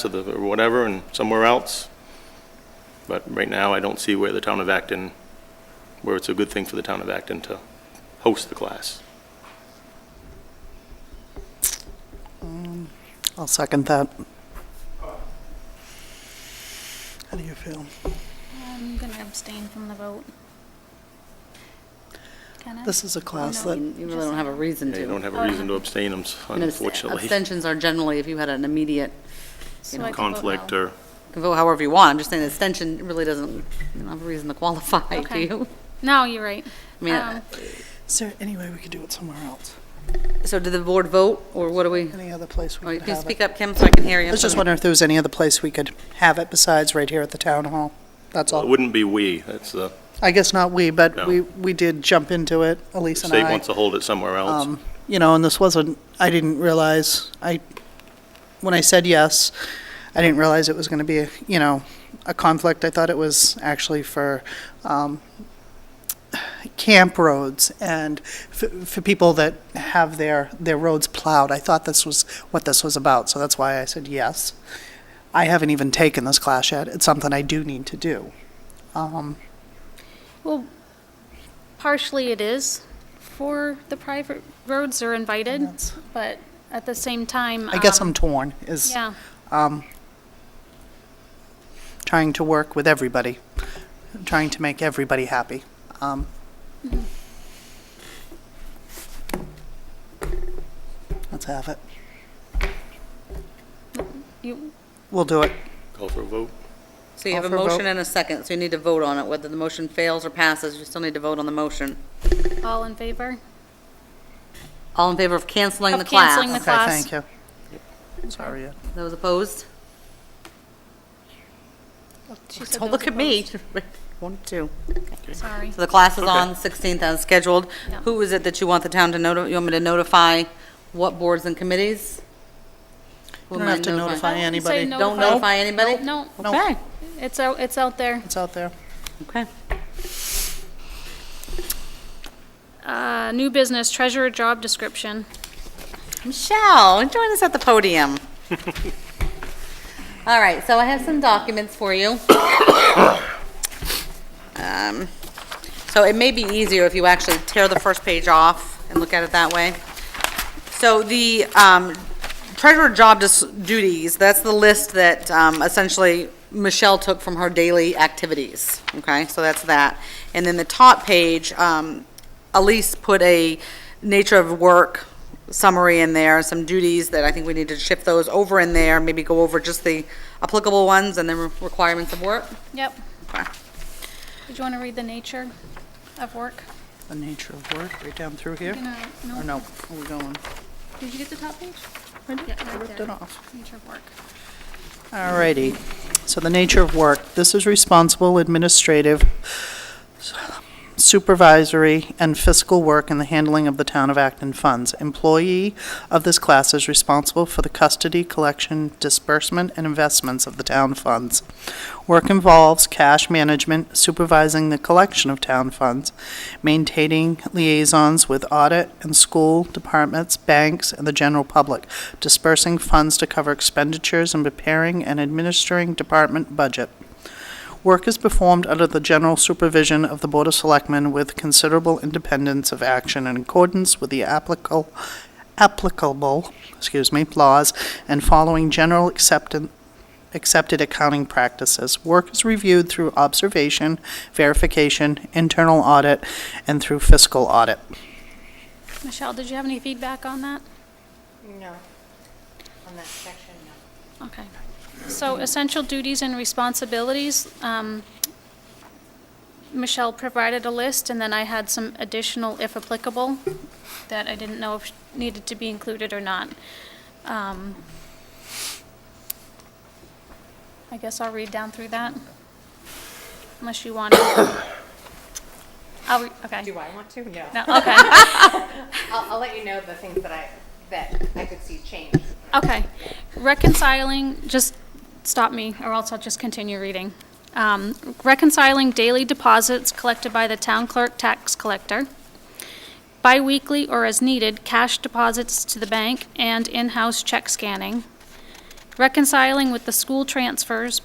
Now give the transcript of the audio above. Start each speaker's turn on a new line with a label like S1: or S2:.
S1: to the, or whatever, and somewhere else. But right now, I don't see where the town of Acton, where it's a good thing for the town of Acton to host the class.
S2: I'll second that. How do you feel?
S3: I'm going to abstain from the vote. Can I?
S2: This is a class
S3: No.
S2: that,
S4: You really don't have a reason
S1: And You don't
S4: to.
S1: have a reason to abstain, um,
S4: And abst-
S1: unfortunately.
S4: Abstentions are generally, if you had an immediate,
S3: So I can vote
S1: Conflict
S3: no.
S1: or,
S4: you can vote however you want, I'm just saying abstention really doesn't, you don't have a reason to qualify, do
S3: Okay.
S4: you?
S3: No, you're right.
S4: I mean,
S3: Um,
S2: is there any way we could do it somewhere else?
S4: So did the board vote, or what do we?
S2: Any other place
S4: Oh,
S2: we
S4: you
S2: could
S4: can
S2: have
S4: speak
S2: it?
S4: up, Kim, so I can hear you.
S2: I was just wondering if there was any other place we could have it besides right here at the town hall? That's
S1: it
S2: all.
S1: wouldn't be we, that's the,
S2: I guess not we, but
S1: No.
S2: we, we did jump into it,
S1: the
S2: Elise and
S1: state
S2: I.
S1: wants to hold it somewhere else.
S2: Um, You know, and this wasn't, I didn't realize, I, when I said yes, I didn't realize it was going to be, you know, a conflict. I thought it was actually for um, camp roads and for for people that have their, their roads plowed. I thought this was what this was about, so that's why I said yes. I haven't even taken this class yet. It's something I do need to do. Um,
S3: Well, partially it is for the private roads are invited,
S2: That's-
S3: but at the same time.
S2: I guess
S3: um,
S2: I'm torn, is.
S3: Yeah,
S2: um, trying to work with everybody, trying to make everybody happy. Um, Let's have it.
S3: you,
S2: We'll do it.
S1: Call for a vote.
S4: So you have
S2: Call
S4: a
S2: for a vote.
S4: motion and a second, so you need to vote on it, whether the motion fails or passes, you still need to vote on the motion.
S3: all in favor?
S4: All in favor of canceling
S3: Of
S4: the class?
S3: canceling the
S2: Okay,
S3: class.
S2: thank you. Sorry. yeah.
S4: Those opposed?
S3: She said
S4: Don't
S3: those
S4: Oh, look at me.
S3: opposed.
S4: One, two.
S3: Sorry.
S4: So the class is
S1: Okay.
S4: on 16th as scheduled.
S3: Yeah.
S4: Who is it that you want the town to notify, you want me to notify what boards and committees? Who
S2: You don't
S4: am I
S2: have to notify
S3: I wouldn't say
S2: anybody.
S3: no.
S4: Don't notify anybody?
S3: No,
S2: No.
S4: Okay,
S3: it's out, it's out there.
S2: It's out there.
S4: okay.
S3: Uh, new business, treasurer job description.
S4: Michelle, join us at the podium. All right, so I have some documents for you. Um, So it may be easier if you actually tear the first page off and look at it that way. So the um, treasurer job dis- duties, that's the list that um, essentially Michelle took from her daily activities, okay? So that's that. And then the top page, um, Elise put a nature of work summary in there, some duties that I think we need to shift those over in there, maybe go over just the applicable ones and the re- requirements of work.
S3: Yep.
S4: Okay.
S3: Did you want to read the nature of work? Uh,
S2: The nature of work, right down through here?
S3: You know,
S2: Or no, where we going?
S3: Did you get the top page? Yeah,
S2: I
S3: right
S2: ripped
S3: there.
S2: it off.
S3: Nature of work.
S2: Alrighty, so the nature of work, this is responsible administrative, supervisory, and fiscal work in the handling of the town of Acton funds. Employee of this class is responsible for the custody, collection, disbursement, and investments of the town funds. Work involves cash management, supervising the collection of town funds, maintaining liaisons with audit and school departments, banks, and the general public, dispersing funds to cover expenditures and preparing and administering department budget. Work is performed under the general supervision of the Board of Selectmen with considerable independence of action in accordance with the applicable, applicable, excuse me, laws and following general acceptance accepted accounting practices. Work is reviewed through observation, verification, internal audit, and through fiscal audit.
S3: Michelle, did you have any feedback on that?
S5: No, on that section, no.
S3: Okay. So essential duties and responsibilities, um, Michelle provided a list, and then I had some additional, if applicable, that I didn't know if needed to be included or not. Um, I guess I'll read down through that, unless you want to. I'll, re- okay.
S5: Do I want to? No.
S3: No, okay.
S5: I'll, I'll let you know the things that I, that I could see change.
S3: Okay, reconciling, just stop me, or else I'll just continue reading. Um, Reconciling daily deposits collected by the town clerk tax collector, biweekly or as needed cash deposits to the bank and in-house check scanning, reconciling with the school transfers